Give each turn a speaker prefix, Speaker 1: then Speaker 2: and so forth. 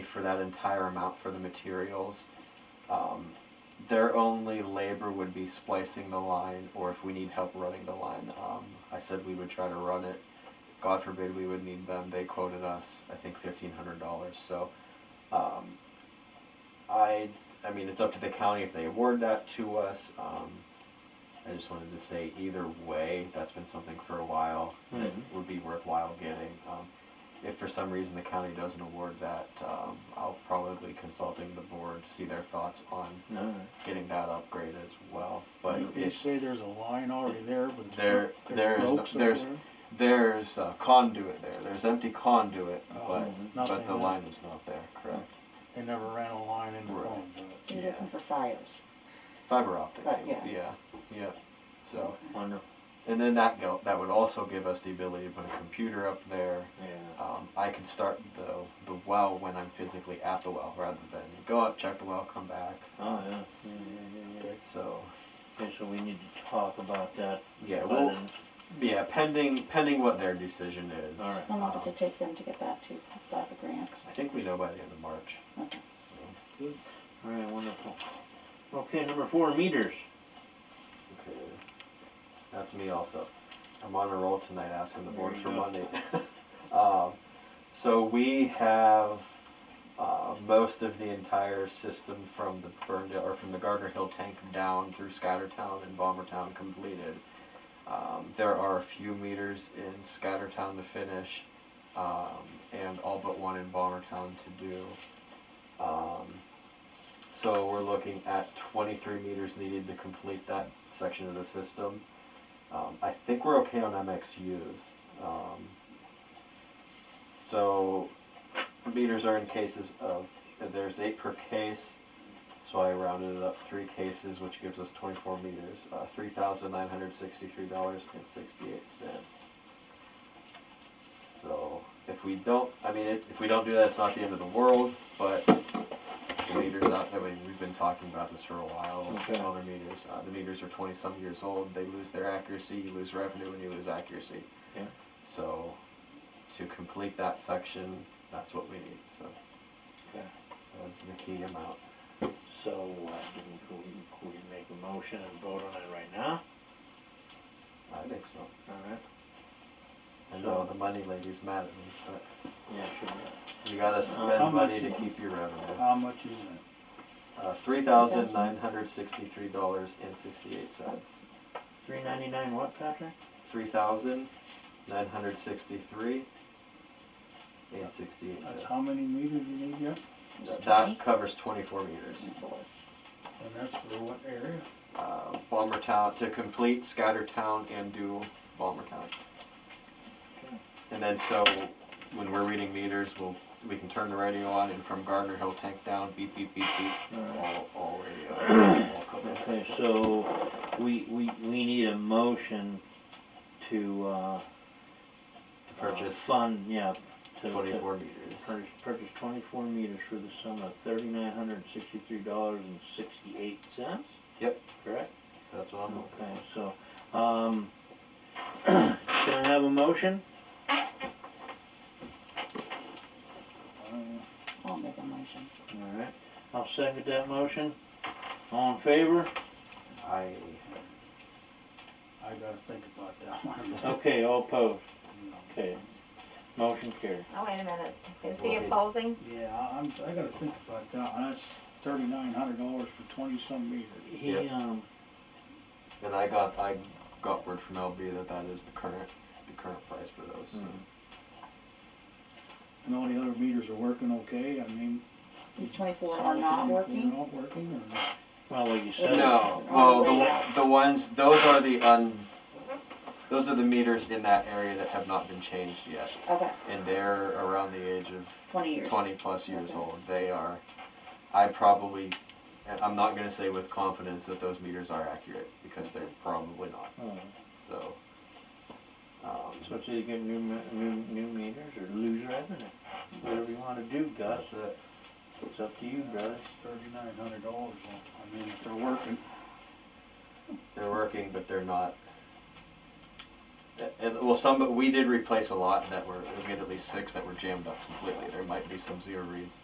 Speaker 1: for that entire amount for the materials. Um, their only labor would be splicing the line, or if we need help running the line. Um, I said we would try to run it. God forbid we would need them. They quoted us, I think, fifteen hundred dollars. So, um, I, I mean, it's up to the county if they award that to us. Um, I just wanted to say either way, that's been something for a while that
Speaker 2: Mhm.
Speaker 1: would be worthwhile getting. Um, if for some reason the county doesn't award that, um, I'll probably consulting the board to see their thoughts on
Speaker 2: No.
Speaker 1: getting that upgrade as well. But
Speaker 3: You
Speaker 1: it's,
Speaker 3: say there's a line already there, but it's
Speaker 1: There- there
Speaker 3: bro- there's
Speaker 1: is no-
Speaker 3: broke
Speaker 1: there's-
Speaker 3: somewhere?
Speaker 1: there's uh, conduit there. There's empty conduit,
Speaker 3: Oh,
Speaker 1: but but
Speaker 3: nothing
Speaker 1: the
Speaker 3: there.
Speaker 1: line is not there. Correct.
Speaker 3: They never ran a line into
Speaker 1: Right.
Speaker 3: one, but
Speaker 4: You're
Speaker 1: Yeah.
Speaker 4: looking for files.
Speaker 1: Fiber optic.
Speaker 4: Right,
Speaker 1: cable,
Speaker 4: yeah.
Speaker 1: Yeah. Yeah. So
Speaker 2: Wonderful.
Speaker 1: and then that go, that would also give us the ability to put a computer up there.
Speaker 2: Yeah.
Speaker 1: Um, I can start the the well when I'm physically at the well, rather than go up, check the well, come back.
Speaker 2: Oh, yeah. Yeah, yeah, yeah, yeah.
Speaker 1: So
Speaker 2: Okay, so we need to talk about that.
Speaker 1: yeah,
Speaker 2: by
Speaker 1: well,
Speaker 2: then.
Speaker 1: yeah, pending pending what their decision is.
Speaker 2: All right.
Speaker 4: How long does
Speaker 1: um,
Speaker 4: it take them to get back to you about the grants?
Speaker 1: I think we know by the end of March.
Speaker 4: Okay.
Speaker 2: All right, wonderful. Okay, number four, meters.
Speaker 1: Okay. That's me also. I'm on a roll tonight asking the
Speaker 2: There
Speaker 1: board
Speaker 2: you
Speaker 1: for
Speaker 2: go.
Speaker 1: money. um, so we have uh, most of the entire system from the Burndale or from the Gardner Hill tank down through Scattertown and Bombertown completed. Um, there are a few meters in Scattertown to finish, um, and all but one in Bombertown to do. Um, so we're looking at 23 meters needed to complete that section of the system. Um, I think we're okay on MXUs. Um, so meters are in cases of, there's eight per case, so I rounded it up three cases, which gives us 24 meters, uh, $3,963.68. So if we don't, I mean, if if we don't do that, it's not the end of the world, but the meters out, I mean, we've been talking about this for a while,
Speaker 2: Okay.
Speaker 1: other meters. Uh, the meters are 20 some years old, they lose their accuracy, you lose revenue, and you lose accuracy.
Speaker 2: Yeah.
Speaker 1: So to complete that section, that's what we need. So
Speaker 2: Okay.
Speaker 1: that's the key amount.
Speaker 2: So, uh, do we, could we, could we make a motion and vote on it right now?
Speaker 1: I think so.
Speaker 2: All right.
Speaker 1: I know the money lady's mad at me,
Speaker 2: Yeah, sure.
Speaker 1: but you gotta
Speaker 2: how
Speaker 1: spend
Speaker 3: much
Speaker 1: money to
Speaker 3: is it?
Speaker 1: keep your revenue.
Speaker 3: how much is it?
Speaker 1: Uh, three thousand nine hundred sixty-three dollars and sixty-eight cents.
Speaker 2: Three ninety-nine what, Patrick?
Speaker 1: Three thousand nine hundred sixty-three and sixty-eight
Speaker 3: That's
Speaker 1: cents.
Speaker 3: how many meters you need yet?
Speaker 4: Just
Speaker 1: That covers twenty-four meters.
Speaker 4: 24.
Speaker 3: And that's for what area?
Speaker 1: Uh, Bombertown, to complete Scattertown and do Bombertown.
Speaker 2: Okay.
Speaker 1: And then so, when we're reading meters, we'll, we can turn the radio on and from Gardner Hill tank down, beep, beep, beep, beep. All, all radio, all covered.
Speaker 2: Okay, so we, we, we need a motion to, uh.
Speaker 1: To purchase
Speaker 2: uh, Fund, yeah. to- to
Speaker 1: twenty-four meters.
Speaker 2: Purchase, purchase twenty-four meters for the sum of thirty-nine hundred and sixty-three dollars and sixty-eight cents?
Speaker 1: Yep.
Speaker 2: Correct?
Speaker 1: That's what I'm looking
Speaker 2: Okay, so, um, can I have a motion?
Speaker 3: Um,
Speaker 4: I'll make a motion.
Speaker 2: All right, I'll second that motion. All in favor?
Speaker 1: for. I,
Speaker 3: I gotta think about that one.
Speaker 2: Okay, all opposed? Okay, motion carried.
Speaker 5: Oh, wait a minute. Is he
Speaker 1: Right.
Speaker 5: opposing?
Speaker 3: Yeah, I- I'm, I gotta think about that one. That's thirty-nine hundred dollars for twenty-some meters.
Speaker 2: He,
Speaker 1: Yep.
Speaker 2: um,
Speaker 1: and I got, I got word from LB that that is the current, the current price for those. so.
Speaker 2: Mhm.
Speaker 3: And all the other meters are working okay? I mean.
Speaker 4: The 24
Speaker 3: some
Speaker 4: are
Speaker 3: of
Speaker 4: not
Speaker 3: them, you
Speaker 4: working?
Speaker 3: know, working or? not?
Speaker 2: well, like you said.
Speaker 1: No, oh, the, one- the ones, those are the un, those are the meters in that area that have not been changed yet.
Speaker 4: Okay,
Speaker 1: And they're around the age of
Speaker 4: 20 years.
Speaker 1: 20 plus years
Speaker 4: Okay.
Speaker 1: old. They are, I probably, and I'm not going to say with confidence that those meters are accurate because they're probably not.
Speaker 2: Oh,
Speaker 1: So, um,
Speaker 2: So it's either get new, me- new, new meters or lose revenue, whatever you wanna do, Gus,
Speaker 1: that's it.
Speaker 2: it's up to you, brother.
Speaker 3: That's thirty-nine hundred dollars. I mean, if they're working.
Speaker 1: They're working, but they're not. And, well, some we did replace a lot that were we had at least six that were jammed up completely. There might be some zero reads